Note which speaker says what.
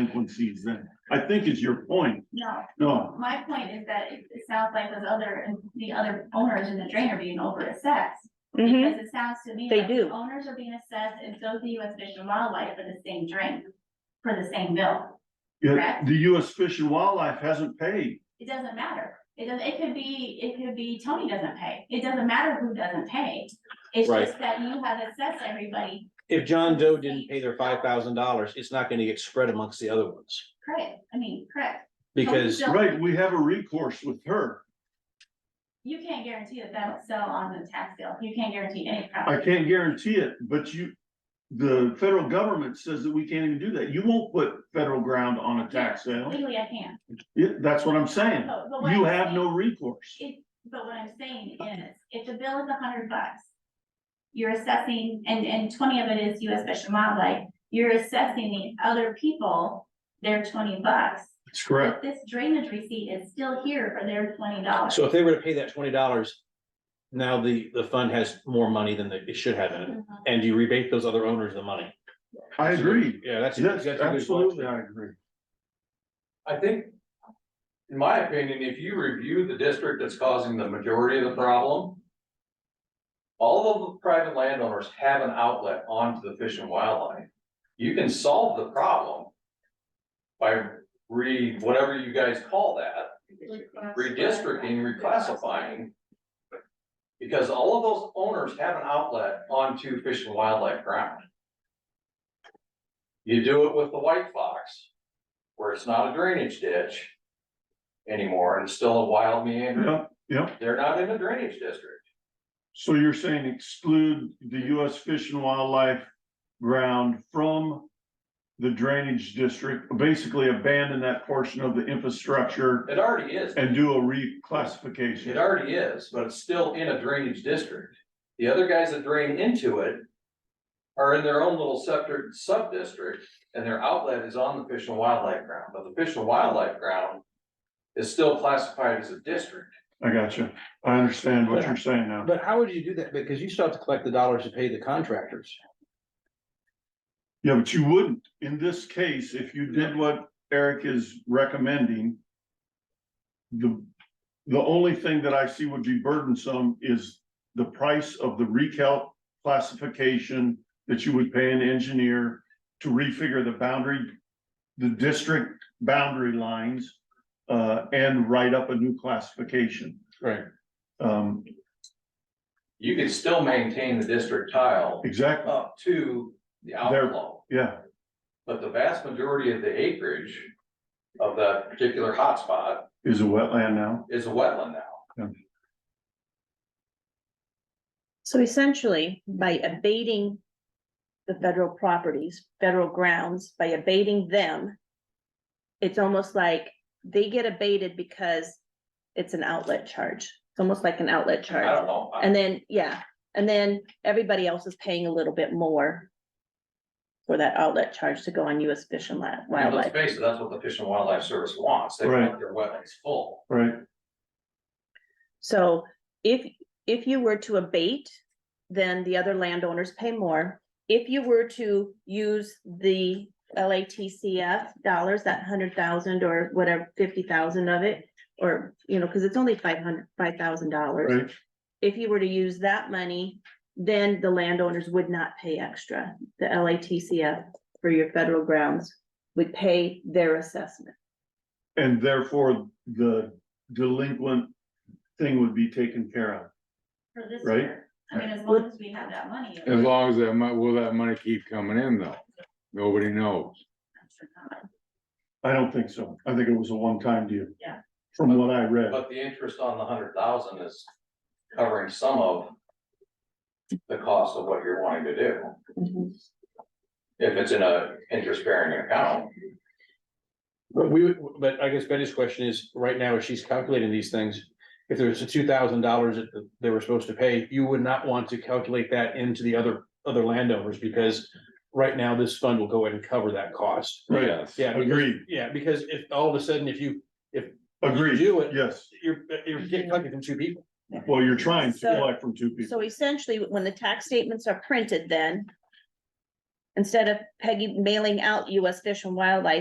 Speaker 1: delinquencies then, I think is your point,
Speaker 2: No,
Speaker 1: no,
Speaker 2: my point is that it, it sounds like those other, the other owners in the drain are being overassessed.
Speaker 3: Mhm.
Speaker 2: Because it sounds to me
Speaker 3: They
Speaker 2: like the
Speaker 3: do.
Speaker 2: owners are being assessed and so is the US Fish and Wildlife for the same drain, for the same bill.
Speaker 1: Yeah,
Speaker 2: Correct.
Speaker 1: the US Fish and Wildlife hasn't paid.
Speaker 2: It doesn't matter. It does, it could be, it could be Tony doesn't pay. It doesn't matter who doesn't pay. It's
Speaker 4: Right.
Speaker 2: just that you have assessed everybody,
Speaker 4: If John Doe didn't pay their five thousand dollars, it's not gonna get spread amongst the other ones,
Speaker 2: correct, I mean, correct.
Speaker 4: because,
Speaker 2: Don't-
Speaker 1: Right, we have a recourse with her.
Speaker 2: You can't guarantee that that'll sell on the tax bill. You can't guarantee any
Speaker 1: I
Speaker 2: property.
Speaker 1: can't guarantee it, but you, the federal government says that we can't even do that. You won't put federal ground on a tax sale.
Speaker 2: Legally, I can't.
Speaker 1: Yeah, that's what I'm saying.
Speaker 2: But- but what
Speaker 1: You
Speaker 2: I'm
Speaker 1: have
Speaker 2: saying-
Speaker 1: no recourse.
Speaker 2: It, but what I'm saying is, if the bill is a hundred bucks, you're assessing, and, and twenty of it is US Fish and Wildlife, you're assessing the other people, their twenty bucks.
Speaker 1: That's
Speaker 2: But this drainage receipt is still here for their twenty dollars.
Speaker 4: so if they were to pay that twenty dollars. Now the, the fund has more money than they- it should have in it, and you rebate those other owners the money.
Speaker 1: I agree.
Speaker 4: Yeah, that's.
Speaker 1: Yes,
Speaker 4: that's a good point.
Speaker 1: absolutely, I agree.
Speaker 5: I think, in my opinion, if you review the district that's causing the majority of the problem. All of the private landowners have an outlet onto the fish and wildlife. You can solve the problem. By re, whatever you guys call that, redistricting, reclassifying. Because all of those owners have an outlet onto fish and wildlife ground. You do it with the white fox where it's not a drainage ditch anymore, and it's still a wild meander.
Speaker 1: Yeah, yeah.
Speaker 5: They're not in a drainage district.
Speaker 1: So you're saying exclude the US Fish and Wildlife ground from the drainage district, basically abandon that portion of the infrastructure
Speaker 5: It already is,
Speaker 1: and do a
Speaker 5: it
Speaker 1: reclassification.
Speaker 5: already is, but it's still in a drainage district. The other guys that drain into it are in their own little separate sub-district, and their outlet is on the Fish and Wildlife Ground, but the Fish and Wildlife Ground is still classified as a district.
Speaker 1: I got you. I understand what you're saying now.
Speaker 4: But how would you do that? Because you still have to collect the dollars to pay the contractors.
Speaker 1: Yeah, but you wouldn't, in this case, if you did what Eric is recommending. The, the only thing that I see would be burdensome is the price of the recalc classification. That you would pay an engineer to refigure the boundary, the district boundary lines. Uh, and write up a new classification,
Speaker 4: Right.
Speaker 1: um,
Speaker 5: You could still maintain the district tile
Speaker 1: exactly,
Speaker 5: up to the
Speaker 1: There-
Speaker 5: outflow.
Speaker 1: yeah,
Speaker 5: But the vast majority of the acreage of that particular hotspot
Speaker 1: is a wetland now.
Speaker 5: is a wetland now.
Speaker 3: So essentially, by abating the federal properties, federal grounds, by abating them, it's almost like they get abated because it's an outlet charge. It's almost like an outlet
Speaker 5: I
Speaker 3: charge.
Speaker 5: don't know. I-
Speaker 3: And then, yeah, and then everybody else is paying a little bit more for that outlet charge to go on US Fish and Wi-
Speaker 5: I mean, Let's
Speaker 3: Wildlife.
Speaker 5: face it, that's what the Fish and Wildlife Service wants. They
Speaker 1: Right.
Speaker 5: want their wetlands full.
Speaker 1: Right,
Speaker 3: So if, if you were to abate, then the other landowners pay more. If you were to use the LATCF dollars, that hundred thousand or whatever, fifty thousand of it, or, you know, because it's only five hundred, five thousand dollars.
Speaker 1: right,
Speaker 3: If you were to use that money, then the landowners would not pay extra. The LATCF for your federal grounds would pay their assessment.
Speaker 1: and therefore the delinquent thing would be taken care of.
Speaker 2: For this
Speaker 1: Right.
Speaker 2: year, I mean, as long as we have that money. it-
Speaker 6: As long as that mon- will that money keep coming in though? Nobody knows.
Speaker 2: I'm sure not.
Speaker 1: I don't think so. I think it was a one-time deal.
Speaker 2: Yeah.
Speaker 1: From what I read.
Speaker 5: But the interest on the hundred thousand is covering some of the cost of what you're wanting to do. If it's in a interest bearing account,
Speaker 4: But we, would- but I guess Betty's question is, right now, as she's calculating these things, if there's a two thousand dollars that they were supposed to pay, you would not want to calculate that into the other, other landowners, because right now, this fund will go ahead and cover that cost.
Speaker 1: Right.
Speaker 6: Yes.
Speaker 4: Yeah. because-
Speaker 1: Oh, Agreed,
Speaker 4: Yeah, because if all of a sudden, if you,
Speaker 1: agreed.
Speaker 4: do it.
Speaker 1: Yes.
Speaker 4: you're, you're getting collected from two people.
Speaker 1: Well, you're trying to
Speaker 3: So-
Speaker 1: collect from two people.
Speaker 3: So essentially, when the tax statements are printed then, instead of Peggy mailing out US Fish and Wildlife